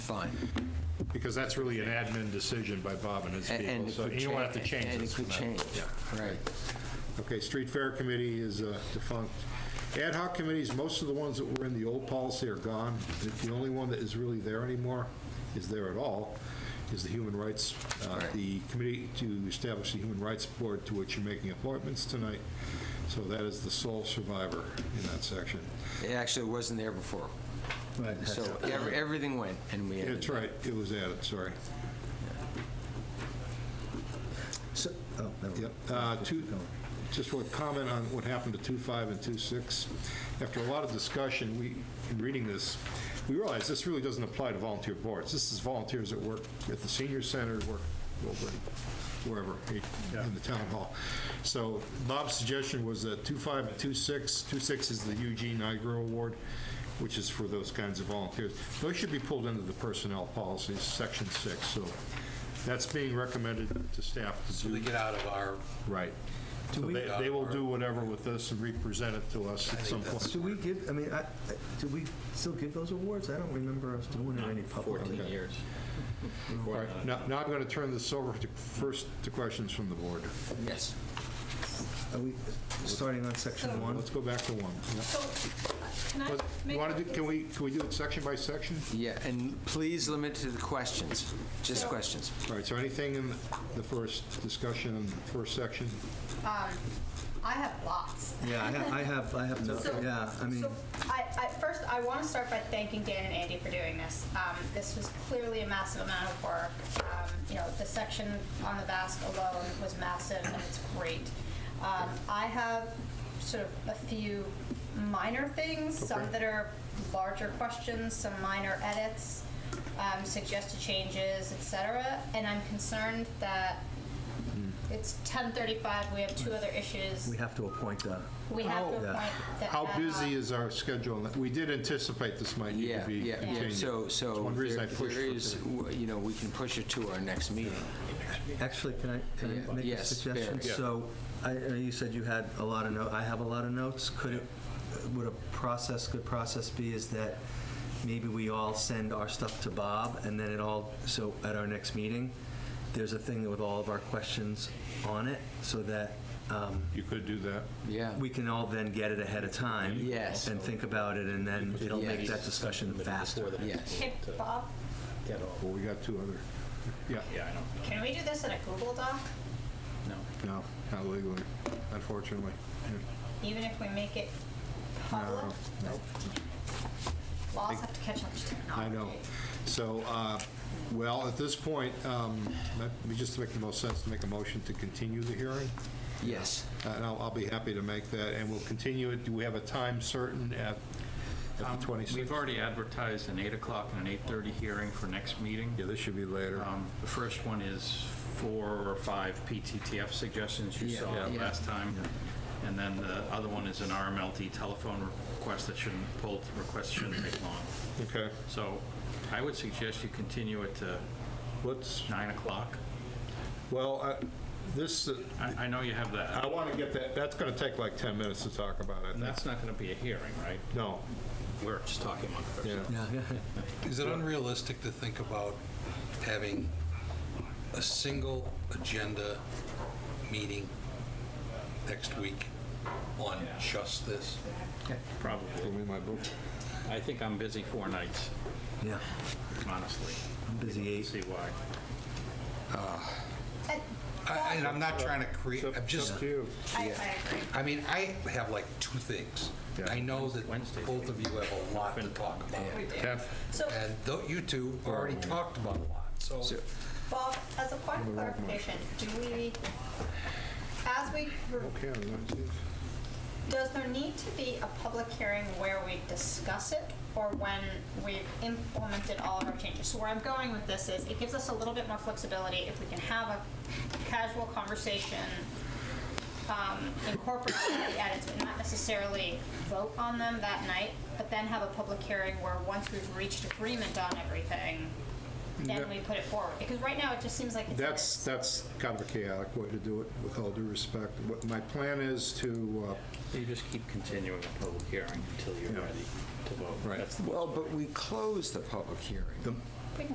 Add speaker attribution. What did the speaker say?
Speaker 1: fine.
Speaker 2: Because that's really an admin decision by Bob and his
Speaker 1: A-
Speaker 2: people,
Speaker 1: And it
Speaker 2: so
Speaker 1: could
Speaker 2: you don't have to
Speaker 1: change-
Speaker 2: change
Speaker 1: And
Speaker 2: this.
Speaker 1: it could
Speaker 2: from that.
Speaker 1: change,
Speaker 2: Yeah.
Speaker 1: right.
Speaker 2: Okay, Street Fair Committee is uh, defunct. Ad hoc committees, most of the ones that were in the old policy are gone. The- The only one that is really there anymore, is there at all, is the Human Rights, uh,
Speaker 1: Right.
Speaker 2: the committee to establish the Human Rights Board to which you're making appointments tonight. So that is the sole survivor in that section.
Speaker 1: It actually wasn't there before. So every- everything went, and we
Speaker 2: That's
Speaker 1: added.
Speaker 2: right, it was added, sorry.
Speaker 3: So- oh, never mind.
Speaker 2: Yep. Uh, two- Just want to comment on what happened to 2.5 and 2.6. After a lot of discussion, we, in reading this, we realized this really doesn't apply to volunteer boards. This is volunteers that work at the senior center, work over- wherever, eh, in the town hall. So Bob's suggestion was that 2.5 and 2.6, 2.6 is the Eugene Iger Award, which is for those kinds of volunteers. Those should be pulled into the personnel policies, section six, so that's being recommended to staff to do.
Speaker 4: So they get out of our,
Speaker 2: Right. So they, they will do whatever with this and represent it to us at some point.
Speaker 3: Do we give, I mean, I, I- do we still give those awards? I don't remember us doing it any publicly.
Speaker 2: Okay.
Speaker 5: years.
Speaker 2: All right, Now, now I'm going to turn this over to, first to questions from the board.
Speaker 1: Yes.
Speaker 3: Are we starting on section one?
Speaker 2: Let's go back to one.
Speaker 6: So, can I
Speaker 2: But
Speaker 6: make?
Speaker 2: You want to do, can we, can we do it section by section?
Speaker 1: Yeah, and please limit to the questions, just
Speaker 6: So-
Speaker 1: questions.
Speaker 2: All right, so anything in the first discussion, in the first section?
Speaker 6: I have lots.
Speaker 3: Yeah, I ha- I have, I have,
Speaker 6: So-
Speaker 3: no- yeah, I mean,
Speaker 6: So, I, I, first, I want to start by thanking Dan and Andy for doing this. Um, this was clearly a massive amount of work. Um, you know, the section on the Basque alone was massive, and it's great. Um, I have sort of a few minor things, some that are larger questions, some minor edits, um, suggested changes, etc. And I'm concerned that
Speaker 3: Hmm.
Speaker 6: it's 10:35. We have two other issues.
Speaker 3: we have to appoint a,
Speaker 6: We have to
Speaker 3: How-
Speaker 6: appoint the
Speaker 2: How
Speaker 6: ad hoc.
Speaker 2: busy is our schedule? We did anticipate this might need
Speaker 1: Yeah,
Speaker 2: to be
Speaker 1: yeah.
Speaker 2: continued.
Speaker 1: So,
Speaker 2: It's
Speaker 1: so
Speaker 2: One reason I
Speaker 1: there there
Speaker 2: pushed for
Speaker 1: is,
Speaker 2: today.
Speaker 1: w- you know, we can push it to our next meeting.
Speaker 3: actually, can I, can
Speaker 1: Yeah,
Speaker 3: I make a
Speaker 1: yes,
Speaker 3: suggestion?
Speaker 1: Barry. Yeah.
Speaker 3: So, I, I know you said you had a lot of notes, I have a lot of notes. Could it, would a process, good process be is that maybe we all send our stuff to Bob and then it all, so at our next meeting, there's a thing with all of our questions on it so that, um,
Speaker 2: You could do that.
Speaker 1: Yeah.
Speaker 3: we can all then get it ahead of time.
Speaker 1: Yes.
Speaker 3: And think about it, and then it'll make that discussion faster.
Speaker 1: Yes.
Speaker 6: Hey, Bob,
Speaker 2: Well, we got two other, yeah,
Speaker 4: yeah, I don't
Speaker 6: can we do this in a Google Doc?
Speaker 4: know.
Speaker 2: no, not legally, unfortunately.
Speaker 6: Even if we make it public?
Speaker 2: No, no.
Speaker 6: Laws have to catch up to
Speaker 2: I
Speaker 6: technology.
Speaker 2: know. So, uh, well, at this point, um, let me just make the most sense to make a motion to continue the hearing,
Speaker 1: Yes.
Speaker 2: Uh, and I'll I'll be happy to make that, and we'll continue it. Do we have a time certain at at the
Speaker 4: Um, We've
Speaker 2: 26th?
Speaker 4: already advertised an 8 o'clock and an 8:30 hearing for next meeting.
Speaker 2: Yeah, this should be later.
Speaker 4: Um, The first one is four or five PTTF suggestions you
Speaker 1: Yeah,
Speaker 4: saw
Speaker 1: yeah.
Speaker 4: last time. And then the other one is an RMLT telephone request that shouldn't, pulled request shouldn't take long.
Speaker 2: Okay,
Speaker 4: So I would suggest you continue it to
Speaker 2: let's,
Speaker 4: 9 o'clock.
Speaker 2: well, I- this, uh,
Speaker 4: I I know you have
Speaker 2: I
Speaker 4: that.
Speaker 2: want to get that, that's going to take like 10 minutes to talk about it.
Speaker 4: And that's not going to be a hearing, right?
Speaker 2: No,
Speaker 4: We're just talking about it.
Speaker 2: yeah.
Speaker 7: Is it unrealistic to think about having a single agenda meeting next week on just this?
Speaker 4: Probably.
Speaker 2: Give me my book.
Speaker 4: I think I'm busy four nights,
Speaker 3: Yeah,
Speaker 4: honestly.
Speaker 3: I'm busy eight.
Speaker 4: See why.
Speaker 6: I-
Speaker 7: I- And I'm not trying to create,
Speaker 2: It's up-
Speaker 7: I'm
Speaker 2: it's
Speaker 7: just,
Speaker 2: up to you.
Speaker 6: I, I agree.
Speaker 7: I mean, I have like two things. I know that
Speaker 4: Wednesday.
Speaker 7: both of you have a lot to talk about.
Speaker 6: We do.
Speaker 2: Yeah.
Speaker 6: So,
Speaker 7: And tho- you two already
Speaker 2: Oh.
Speaker 7: talked about a lot, so
Speaker 6: Bob, as a point of clarification, do we, as we, re-
Speaker 2: Okay, I'm gonna see.
Speaker 6: does there need to be a public hearing where we discuss it or when we've implemented all of our changes? So where I'm going with this is, it gives us a little bit more flexibility if we can have a casual conversation um, incorporate the edits, but not necessarily vote on them that night, but then have a public hearing where once we've reached agreement on everything, then we put it forward. Because right now, it just seems like it's. like
Speaker 2: That's, that's kind of a chaotic way to do it, with all due respect. What my plan is to, uh,
Speaker 4: You just keep continuing the public hearing until you're
Speaker 2: Yeah.
Speaker 4: ready to vote.
Speaker 2: Right.
Speaker 4: That's the-
Speaker 1: Well, but we closed the public hearing.
Speaker 2: uh, the